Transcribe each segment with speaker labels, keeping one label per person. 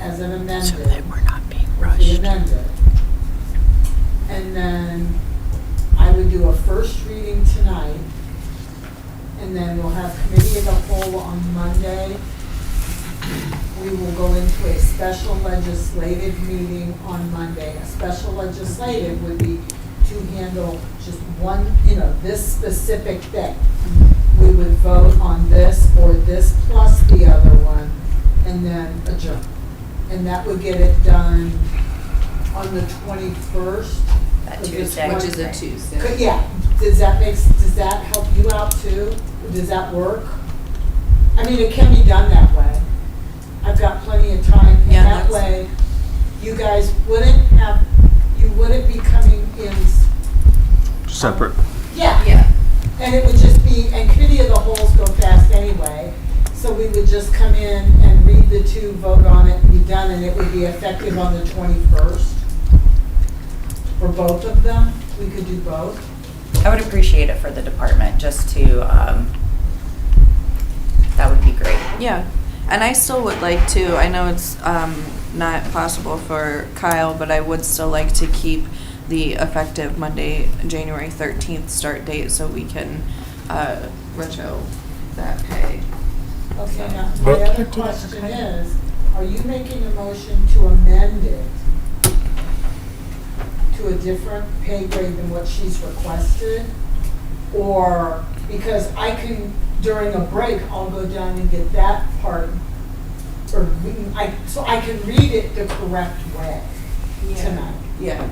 Speaker 1: as an
Speaker 2: so
Speaker 1: amended,
Speaker 2: that we're not being
Speaker 1: the
Speaker 2: rushed.
Speaker 1: amended. And then I would do a first reading tonight, and then we'll have committee of the whole on Monday. We will go into a special legislative meeting on Monday. A special legislative would be to handle just one, you know, this specific thing we would vote on this or this plus the other one, and then adjourn. And that would get it done on the 21st.
Speaker 3: That
Speaker 1: Which is
Speaker 3: Tuesday, which is a
Speaker 1: Wednesday. Could-
Speaker 3: Tuesday.
Speaker 1: Yeah, does that make, does that help you out too? Does that work? I mean, it can be done that way. I've got plenty of time, and
Speaker 3: Yeah,
Speaker 1: that
Speaker 3: that's-
Speaker 1: way, you guys wouldn't have, you wouldn't be coming in, s-
Speaker 4: Separate.
Speaker 1: yeah.
Speaker 3: Yeah,
Speaker 1: And it would just be, and committee of the holes go fast anyway, so we would just come in and read the two, vote on it, and be done, and it would be effective on the 21st. For both of them, we could do both.
Speaker 5: I would appreciate it for the department, just to, um, that would be great.
Speaker 3: yeah. And I still would like to, I know it's um, not possible for Kyle, but I would still like to keep the effective Monday, January 13th start date so we can uh, retro that pay.
Speaker 1: Okay, now, my other question is, are you making a motion to amend it to a different pay grade than what she's requested? Or, because I can, during a break, I'll go down and get that part, or, we can- I, so I can read it the correct way tonight.
Speaker 3: Yeah,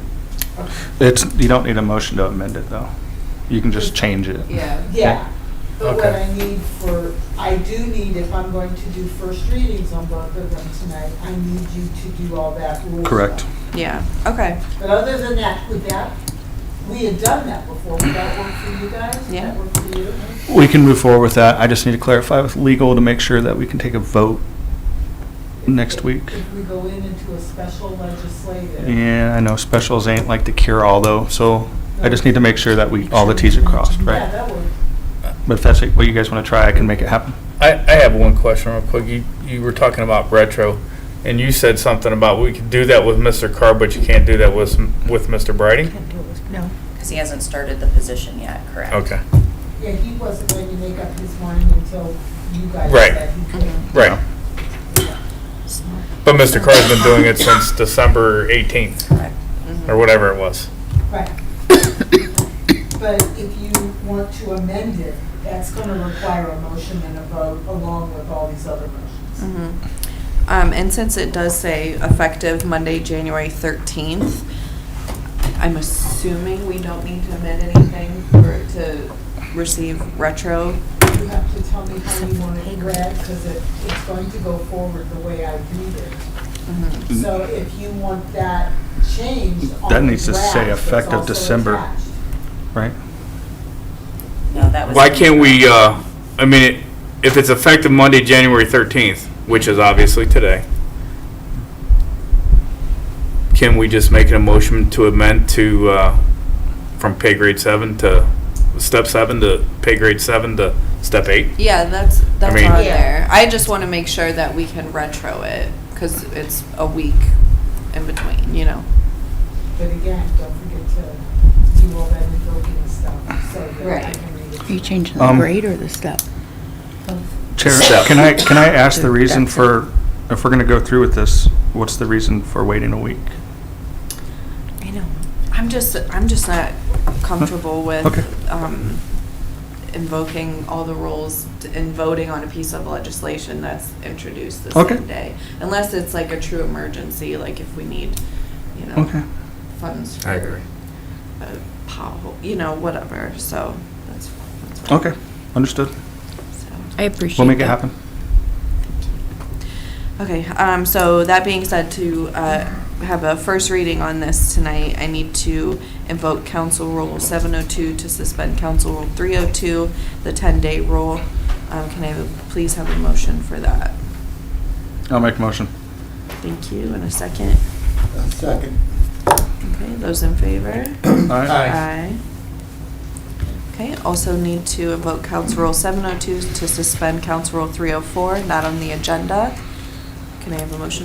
Speaker 4: It's, you don't need a motion to amend it, though. You can just change it.
Speaker 3: yeah.
Speaker 1: Yeah, but what
Speaker 4: Okay.
Speaker 1: I need for, I do need, if I'm going to do first readings on both of them tonight, I need you to do all that rule stuff.
Speaker 4: Correct.
Speaker 3: Yeah, okay,
Speaker 1: But other than that, with that, we had done that before. Would that work for you guys? Would
Speaker 3: Yeah.
Speaker 1: that work for you?
Speaker 4: We can move forward with that. I just need to clarify with legal to make sure that we can take a vote next week.
Speaker 1: If we go in into a special legislative.
Speaker 4: Yeah, I know specials ain't like the cure-all, though, so I just need to make sure that we, all the Ts are crossed,
Speaker 1: Yeah,
Speaker 4: right?
Speaker 1: that would,
Speaker 4: But if that's what you guys want to try, I can make it happen.
Speaker 6: I, I have one question real quick. You, you were talking about retro, and you said something about we could do that with Mr. Carr, but you can't do that with, with Mr. Brady?
Speaker 5: No. Because he hasn't started the position yet, correct?
Speaker 6: Okay,
Speaker 1: yeah, he wasn't going to make up his mind until you guys
Speaker 6: Right.
Speaker 1: said he could.
Speaker 6: right. But Mr. Carr's been doing it since December 18th,
Speaker 5: Correct.
Speaker 6: or whatever it was.
Speaker 1: Right. But if you want to amend it, that's going to require a motion and a vote along with all these other motions.
Speaker 3: Mhm. Um, and since it does say effective Monday, January thirteenth, I'm assuming we don't need to amend anything for it to receive retro.
Speaker 1: You have to tell me how you want it read because it, it's going to go forward the way I read it. So if you want that changed on
Speaker 4: Mm. That needs to
Speaker 1: the
Speaker 4: say
Speaker 1: draft, it's
Speaker 4: effective
Speaker 1: also
Speaker 4: December.
Speaker 1: attached.
Speaker 4: Right?
Speaker 5: No, that was.
Speaker 6: Why can't we, uh, I mean, if it's effective Monday, January 13th, which is obviously today, can we just make an motion to amend to, uh, from pay grade seven to, step seven to pay grade seven to step eight?
Speaker 3: Yeah, that's, that's
Speaker 6: mean-
Speaker 3: on
Speaker 1: Yeah.
Speaker 3: there. I just wanna make sure that we can retro it, cause it's a week in between, you know?
Speaker 1: But again, don't forget to do all that invoking stuff so that I
Speaker 3: Right.
Speaker 1: can read it.
Speaker 7: Are you changing the
Speaker 4: Um,
Speaker 7: grade or the step?
Speaker 4: Chair,
Speaker 6: Step.
Speaker 4: can I, can I ask the
Speaker 7: Step.
Speaker 4: reason for, if we're going to go through with this, what's the reason for waiting a week?
Speaker 3: I know. I'm just, I'm just not comfortable
Speaker 4: Okay.
Speaker 3: with, um, invoking all the rules and voting on a piece of legislation that's introduced the
Speaker 4: Okay.
Speaker 3: same day. Unless it's like a true emergency, like if we need, you
Speaker 4: Okay.
Speaker 3: know, funds
Speaker 6: I agree.
Speaker 3: for a pothole, you know, whatever, so that's. that's fine.
Speaker 4: Okay, understood.
Speaker 3: So-
Speaker 7: I appreciate
Speaker 4: We'll make it
Speaker 7: that.
Speaker 4: happen.
Speaker 3: Okay, um, so that being said, to, uh, have a first reading on this tonight, I need to invoke council rule seven oh two to suspend council rule three oh two, the ten-day rule. Um, can I have- please have a motion for that?
Speaker 4: I'll make a motion.
Speaker 3: Thank you, and a second.
Speaker 8: Second.
Speaker 3: Okay, those in favor?
Speaker 4: Aye.
Speaker 3: Aye. Okay, also need to invoke council rule seven oh two to suspend council rule three oh four, not on the agenda. Can I have a motion